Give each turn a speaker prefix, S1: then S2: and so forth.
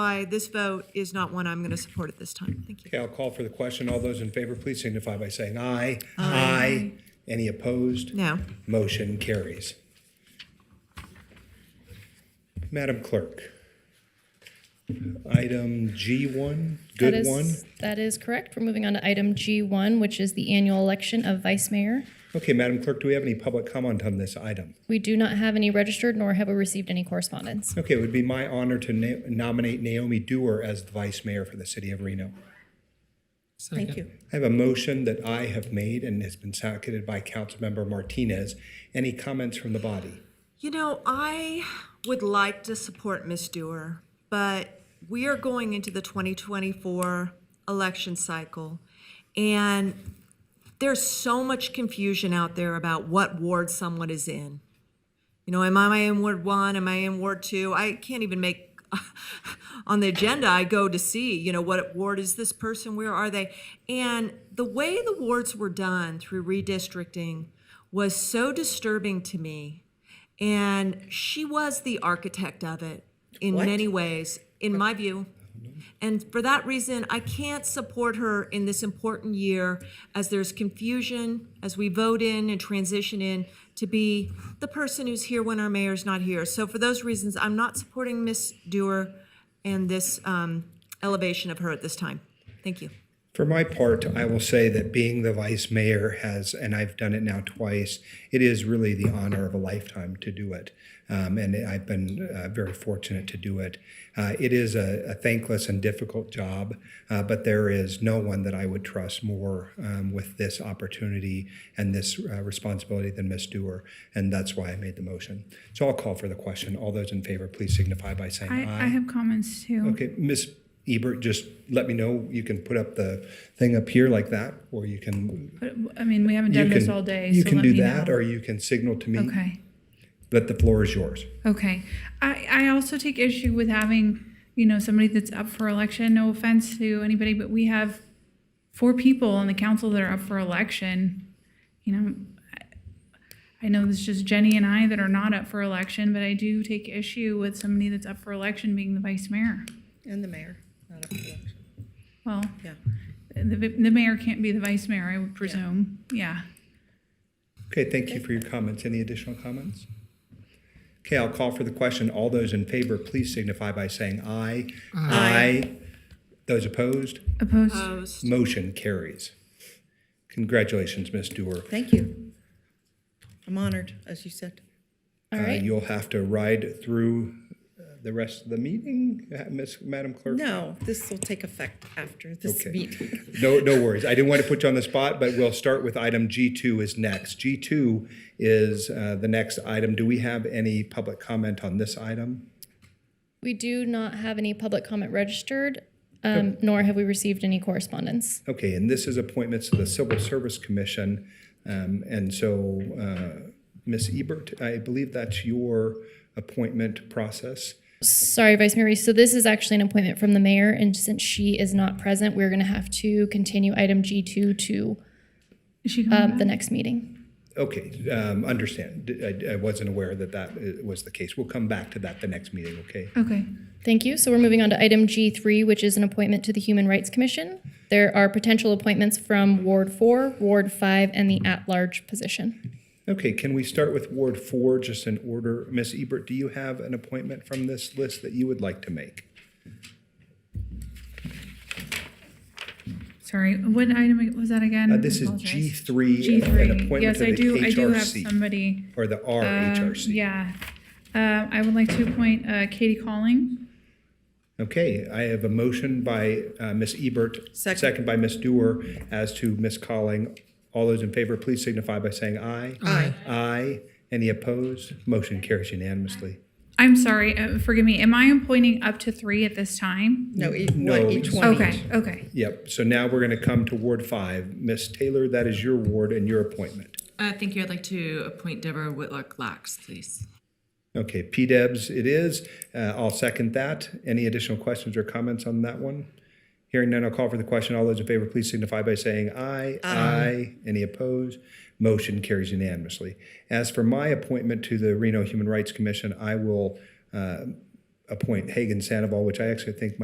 S1: why this vote is not one I'm going to support at this time. Thank you.
S2: Okay, I'll call for the question. All those in favor, please signify by saying aye. Aye. Any opposed?
S1: No.
S2: Motion carries. Madam Clerk, item G1,
S3: That
S2: good
S3: is-
S2: one.
S3: That is correct. We're moving on to item G1, which is the annual election of vice mayor.
S2: Okay, Madam Clerk, do we have any public comment on this item?
S3: We do not have any registered, nor have we received any correspondence.
S2: Okay, it would be my honor to na- nominate Naomi Dewar as the Vice Mayor for the City of Reno.
S1: Thank you.
S2: I have a motion that I have made and has been seconded by Councilmember Martinez. Any comments from the body?
S1: You know, I would like to support Ms. Dewar, but we are going into the 2024 election cycle, and there's so much confusion out there about what ward someone is in. You know, am I in Ward One? Am I in Ward Two? I can't even make on the agenda. I go to see, you know, what ward is this person? Where are they? And the way the wards were done through redistricting was so disturbing to me. And she was the architect of it in many ways, in my view. And for that reason, I can't support her in this important year as there's confusion as we vote in and transition in to be the person who's here when our mayor's not here. So for those reasons, I'm not supporting Ms. Dewar and this um, elevation of her at this time. Thank you.
S2: For my part, I will say that being the vice mayor has, and I've done it now twice, it is really the honor of a lifetime to do it. Um, and I've been uh, very fortunate to do it. Uh, it is a, a thankless and difficult job, uh, but there is no one that I would trust more um, with this opportunity and this uh, responsibility than Ms. Dewar. And that's why I made the motion. So I'll call for the question. All those in favor, please signify by saying
S4: I, I have comments too.
S2: Okay, Miss Ebert, just let me know. You can put up the thing up here like that, or you can.
S4: But, I mean, we haven't
S2: you
S4: done this
S2: can-
S4: all day,
S2: You
S4: so
S2: can
S4: let
S2: do
S4: me
S2: that,
S4: know.
S2: or you can signal to me
S4: Okay,
S2: that the floor is yours.
S4: okay. I, I also take issue with having, you know, somebody that's up for election, no offense to anybody, but we have four people on the council that are up for election. You know, I- I know it's just Jenny and I that are not up for election, but I do take issue with somebody that's up for election being the vice mayor.
S5: And the mayor, not up for election.
S4: Well,
S5: Yeah.
S4: the, the mayor can't be the vice mayor, I would presume, yeah.
S2: Okay, thank you for your comments. Any additional comments? Okay, I'll call for the question. All those in favor, please signify by saying aye. Aye. Those opposed,
S4: Opposed?
S5: Uh,
S1: Opposed?
S2: motion carries. Congratulations, Miss Dewar.
S5: Thank you. I'm honored, as you said.
S3: All
S2: Uh,
S3: right,
S2: You'll have to ride through uh, the rest of the meeting, uh, Miss, Madam Clerk.
S5: No, this will take effect after this
S2: Okay.
S5: meeting.
S2: No, no worries. I didn't want to put you on the spot, but we'll start with item G2 is next. G2 is uh, the next item. Do we have any public comment on this item?
S3: we do not have any public comment registered, um, nor have we received any correspondence.
S2: Okay, and this is appointments to the Civil Service Commission. Um, And so, uh, Ms. Ebert, I believe that's your appointment process.
S3: Sorry, Vice Mayor Reese, so this is actually an appointment from the mayor, and since she is not present, we're gonna have to continue item G2 to,
S4: Is she coming
S3: um,
S4: back?
S3: the next meeting.
S2: Okay, um, understand. I I wasn't aware that that uh, was the case. We'll come back to that the next meeting, okay?
S4: Okay.
S3: Thank you. So we're moving on to item G3, which is an appointment to the Human Rights Commission. There are potential appointments from Ward 4, Ward 5, and the at-large position.
S2: Okay, can we start with Ward four, just in order? Ms. Ebert, do you have an appointment from this list that you would like to make?
S4: Sorry, what item was that again?
S2: Uh, This is
S4: Mm, Apologize.
S2: G three, uh,
S4: G
S2: an
S4: three.
S2: appointment
S4: Yes,
S2: to
S4: I
S2: the
S4: do, I do have
S2: HRC,
S4: somebody.
S2: or the
S4: um,
S2: RHRC.
S4: Yeah. Uh, I would like to appoint uh, Katie Calling.
S2: Okay, I have a motion by uh, Ms. Ebert,
S5: Second.
S2: second by Ms. Dewar, as to Ms. Calling. All those in favor, please signify by saying aye.
S5: Aye.
S2: Aye. Any opposed? Motion carries unanimously.
S4: I'm sorry, uh, forgive me, am I appointing up to three at this time?
S5: No, each
S2: No,
S5: one, each
S2: it's-
S5: one. each.
S4: Okay, okay.
S2: Yep, so now we're going to come to Ward five. Ms. Taylor, that is your ward and your appointment.
S6: Uh, thank you. I'd like to appoint Deborah Whitlock Lax, please.
S2: Okay, P-Debs it is. Uh, I'll second that. Any additional questions or comments on that one? Hearing none, I'll call for the question. All those in favor, please signify by saying aye. Aye. Any opposed? Motion carries unanimously. As for my appointment to the Reno Human Rights Commission, I will appoint Hagan uh, Sandoval, which I actually think might